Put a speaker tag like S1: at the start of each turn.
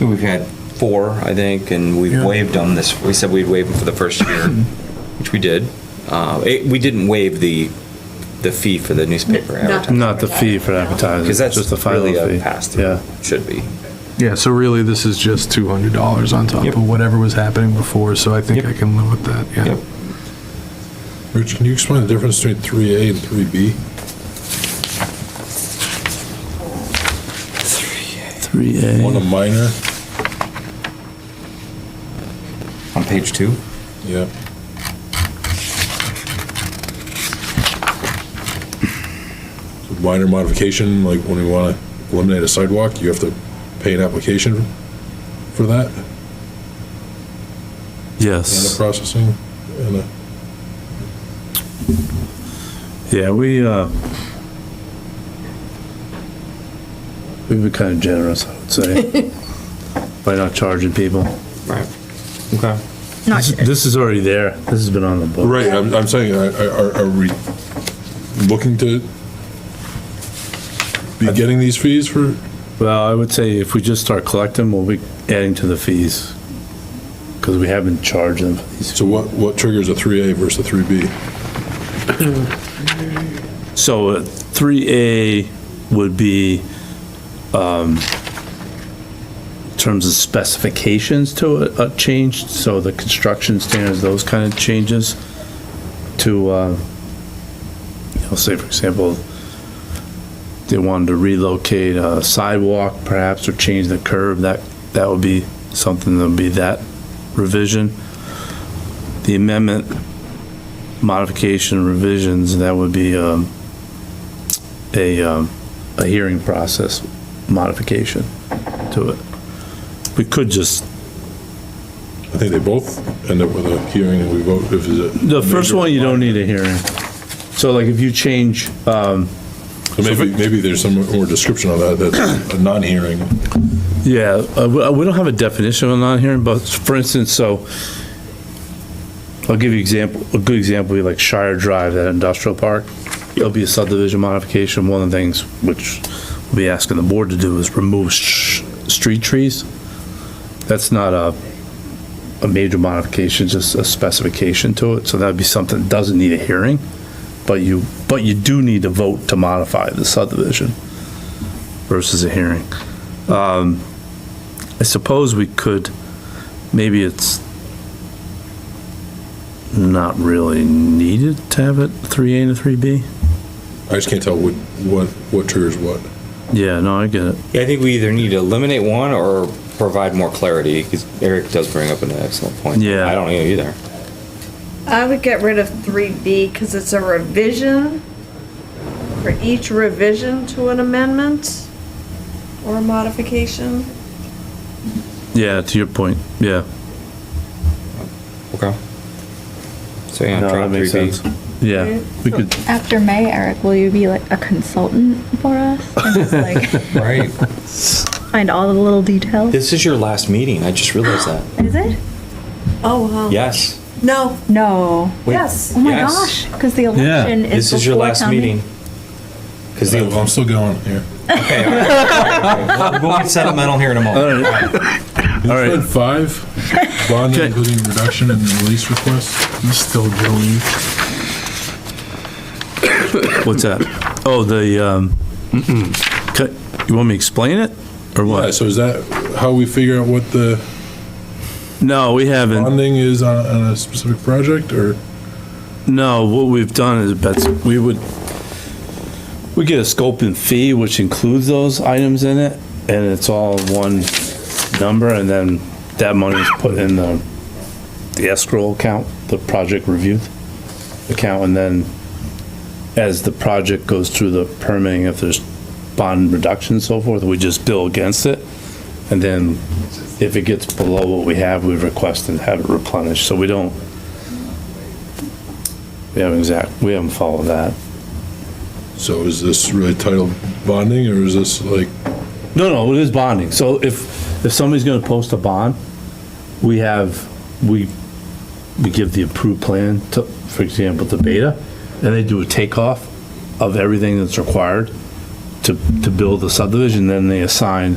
S1: We've had four, I think, and we've
S2: Yeah.
S1: waived them this, we said we'd waive them for the first year, which we did. Uh, it- We didn't waive the, the fee for the newspaper
S3: Not-
S1: advertising,
S2: Not the fee for advertising.
S1: because that's
S2: just the final
S1: really a
S2: fee.
S1: pass-through,
S2: Yeah.
S1: should be.
S4: Yeah, so really, this is just $200 on top
S1: Yep.
S4: of whatever was happening before, so I think
S1: Yep.
S4: I can live with that, yeah.
S1: Yep.
S2: Rich, can you explain the difference between 3A and 3B?
S5: 3A.
S2: One a minor?
S1: On page two?
S2: Yeah. Minor modification, like when we want to eliminate a sidewalk, you have to pay an application for that and a
S5: Yes.
S2: processing and a.
S5: Yeah, we, uh,
S2: We were kind of generous, I would say, by not charging people.
S1: Right. Okay.
S3: Not sure.
S2: This is already there.
S5: this has been on the book.
S2: Right, I'm, I'm saying, are, are- are we looking to be getting these fees for,
S5: Well, I would say if we just start collecting, we'll be adding to the fees. Because we haven't charged them for these.
S2: so what, what triggers a 3A versus a 3B?
S5: So uh, 3A would be, um, in terms of specifications to a, a change, so the construction standards, those kind of changes to, uh, I'll say, for example, they wanted to relocate a sidewalk perhaps, or change the curb, that, that would be something that would be that revision. The amendment modification revisions, that would be um, a, um, a hearing process modification to it. We could just,
S2: I think they both end up with a hearing and we vote if it's a.
S5: the first one, you don't need a hearing. So like if you change, um,
S2: So Maybe, maybe there's some more description on that, that's a non-hearing.
S5: yeah, uh, we we don't have a definition of a non-hearing, but for instance, so I'll give you example, a good example, would be like Shire Drive, that industrial park. There'll be a subdivision modification. One of the things which we'll be asking the board to do is remove sh- street trees. That's not a, a major modification, just a specification to it. So that'd be something that doesn't need a hearing, but you, but you do need to vote to modify the subdivision versus a hearing. Um, I suppose we could, maybe it's not really needed to have it 3A and 3B?
S2: I just can't tell what, what, what triggers what.
S5: Yeah, no, I get it.
S1: Yeah, I think we either need to eliminate one or provide more clarity, because Eric does bring up an excellent point.
S5: Yeah.
S1: I don't know either.
S3: I would get rid of 3B because it's a revision for each revision to an amendment or modification.
S5: Yeah, to your point, yeah.
S1: Okay. So yeah,
S5: No,
S1: drop
S5: that makes
S1: 3B.
S5: sense. Yeah, we could,
S6: After May, Eric, will you be like a consultant for us? And just like
S1: Right.
S6: find all the little details?
S1: This is your last meeting. I just realized that.
S6: Is it?
S3: Oh, wow.
S1: Yes.
S3: No,
S6: No.
S1: Wait.
S3: yes.
S6: Oh my
S1: Yes.
S6: gosh, because the election is.
S1: This is your
S6: before
S1: last
S6: town
S1: meeting. Because the,
S2: I'm still going here.
S1: we'll get settlemental here in a moment.
S2: All
S5: right.
S2: Five, bond
S5: Okay.
S2: including reduction and release request.
S4: He's still going.
S5: what's that? Oh, the, um, cut- you want me to explain it, or
S2: Yeah,
S5: what?
S2: so is that how we figure out what the
S5: No, we haven't.
S2: bonding is on, on a specific project or?
S5: No, what we've done is, Betsy, we would, we get a scope and fee, which includes those items in it, and it's all one number, and then that money is put in the, the escrow account, the project review account, and then as the project goes through the permitting, if there's bond reduction and so forth, we just bill against it, and then if it gets below what we have, we request and have it replenished, so we don't we haven't exact, we haven't followed that.
S2: So is this really titled bonding or is this like,
S5: No, no, it is bonding. So if, if somebody's gonna post a bond, we have, we, we give the approved plan to, for example, to Beta, and they do a takeoff of everything that's required to, to build the subdivision, then they assign